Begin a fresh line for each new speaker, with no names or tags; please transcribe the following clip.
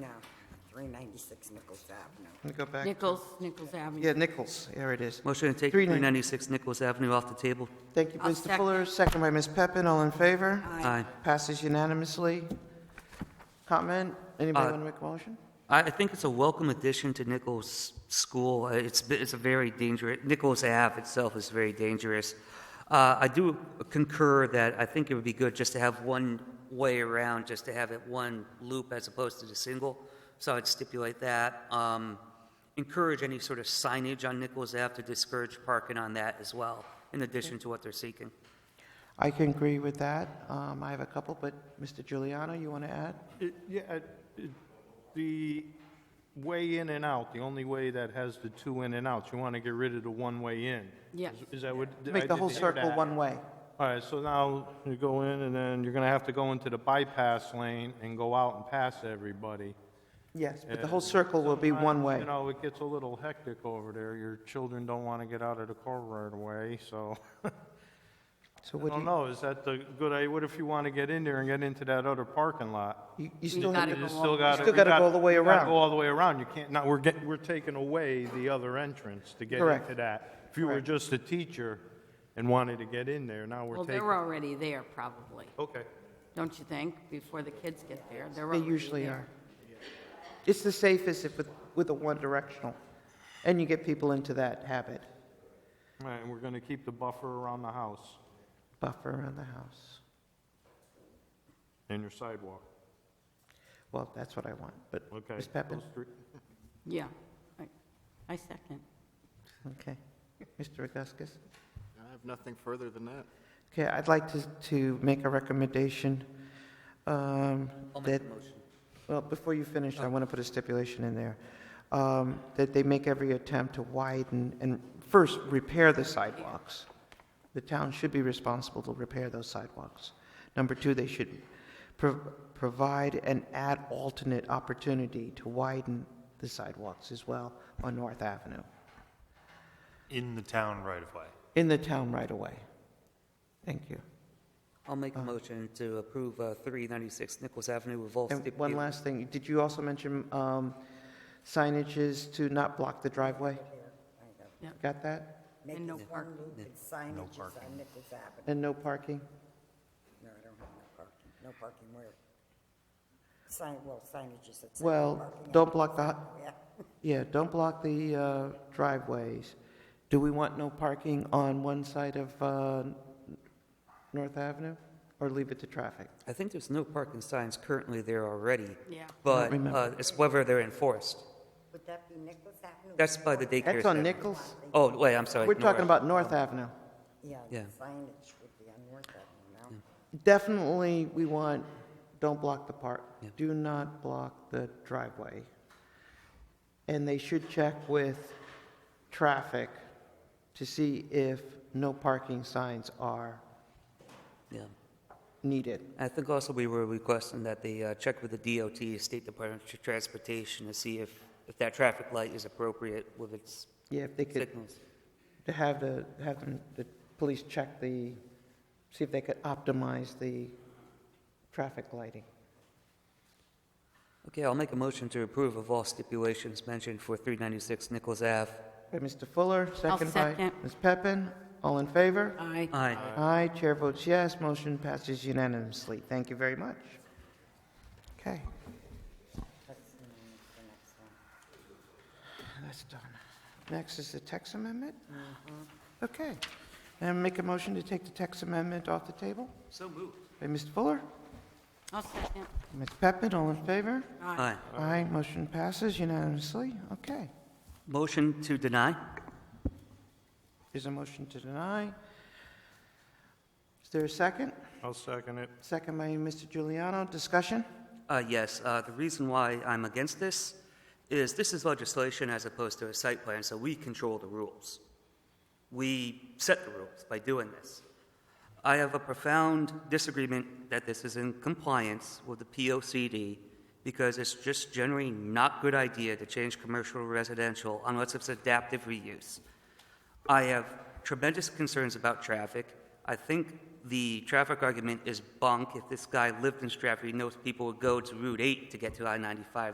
No, 396 Nichols Avenue.
Let me go back.
Nichols, Nichols Avenue.
Yeah, Nichols, there it is.
Motion to take
390.
396 Nichols Avenue off the table.
Thank you,
I'll
Mr.
second.
Fuller, second by Ms. Peppin, all in favor?
Aye.
Passes unanimously. Comment? Anybody
Uh,
want to make a motion?
I, I think it's a welcome addition to Nichols School. Uh, It's, b- it's a very dangerous, Nichols Ave itself is very dangerous. Uh, I do concur that I think it would be good just to have one way around, just to have it one loop as opposed to the single. So I'd stipulate that. Um, encourage any sort of signage on Nichols Ave to discourage parking on that as well, in addition to what they're seeking.
I can agree with that. Um, I have a couple, but Mr. Giuliano, you want to add?
It- Yeah, uh, it- the way in and out, the only way that has the two in and outs, you want to get rid of the one-way in.
Yes.
Is- Is that what? I
Make the
did
whole
hear
circle
that.
one way.
All right, so now you go in, and then you're going to have to go into the bypass lane and go out and pass everybody.
Yes, but the whole circle will be one
Sometimes,
way.
You know, it gets a little hectic over there. Your children don't want to get out of the car right away, so.
So
I
what do
don't
you,
know, is that the good idea? What if you want to get in there and get into that other parking lot?
you- you still,
gotta
have-
go
You
all
still
the-
got to.
Still gotta go all the way around.
Go all the way around. You can't, now, we're getting, we're taking away the other entrance to get
Correct.
into that. If you were
Correct.
just a teacher and wanted to get in there, now we're
Well,
taking.
they're already there, probably,
Okay.
don't you think? Before the kids get there, they're
they
already
usually are.
there.
It's the safest if with, with a one directional, and you get people into that habit,
All right, and we're going to keep the buffer around the house
buffer around the house.
and your sidewalk.
Well, that's what I want, but
Okay.
Ms. Peppin?
Those three-
Yeah, I- I second.
Okay. Mr. Augustus?
I have nothing further than that.
Okay, I'd like to, to make a recommendation um, that... Well, before you finish, I want to put a stipulation in there, um, that they make every attempt to widen and first repair the sidewalks. The town should be responsible to repair those sidewalks. Number two, they should pro- provide and add alternate opportunity to widen the sidewalks as well on North Avenue,
in the town right of way.
in the town right away. Thank you.
I'll make a
Uh-huh.
motion to approve uh, 396 Nichols Avenue with all
And one
stipulations.
last thing, did you also mention um, signages to not block the driveway?
uh,
Yeah.
Got that?
Make
And no
it one
parking.
loop and signage on Nichols Avenue.
And no parking?
No, I don't have no parking. No parking where? Sign, well, signage is at.
Well,
parking
don't
on-
block the,
Yeah.
yeah, don't block the uh, driveways. Do we want no parking on one side of uh, North Avenue, or leave it to traffic?
I think there's no parking signs currently there already.
Yeah.
But
remember.
uh, it's whether they're enforced.
Would that be Nichols Avenue?
That's by the daycare.
That's on
center.
Nichols?
Oh, wait, I'm sorry.
We're
no,
talking
right.
about North Avenue.
Yeah, the
Yeah.
signage would be on North Avenue, no?
Definitely, we want, don't block the park,
Yeah.
do not block the driveway. And they should check with traffic to see if no parking signs are
Yeah.
needed.
I think also we were requesting that they uh, check with the DOT, State Department of Transportation, to see if, if that traffic light is appropriate with its
Yeah, if they could,
signals.
to have the, have them, the police check the, see if they could optimize the traffic lighting.
Okay, I'll make a motion to approve of all stipulations mentioned for 396 Nichols Ave.
By Mr. Fuller, second by
second.
Ms. Peppin, all in favor?
Aye.
Aye.
Aye, chair votes yes, motion passes unanimously. Thank you very much. Okay,
That's the name of the next one.
that's done. Next is the text amendment? Okay, and make a motion to take the text amendment off the table?
So moved.
By Mr. Fuller,
I'll second.
Ms. Peppin, all in favor?
Aye.
Aye, motion passes unanimously, okay.
Motion to deny?
Is a motion to deny? Is there a second?
I'll second it.
Second by Mr. Giuliano, discussion?
Uh, Yes, uh, the reason why I'm against this is this is legislation as opposed to a site plan, so we control the rules. We set the rules by doing this. I have a profound disagreement that this is in compliance with the POCD because it's just generally not good idea to change commercial to residential unless it's adaptive reuse. I have tremendous concerns about traffic. I think the traffic argument is bunk. If this guy lived in Stratford, he knows people would go to Route 8 to get to I-95.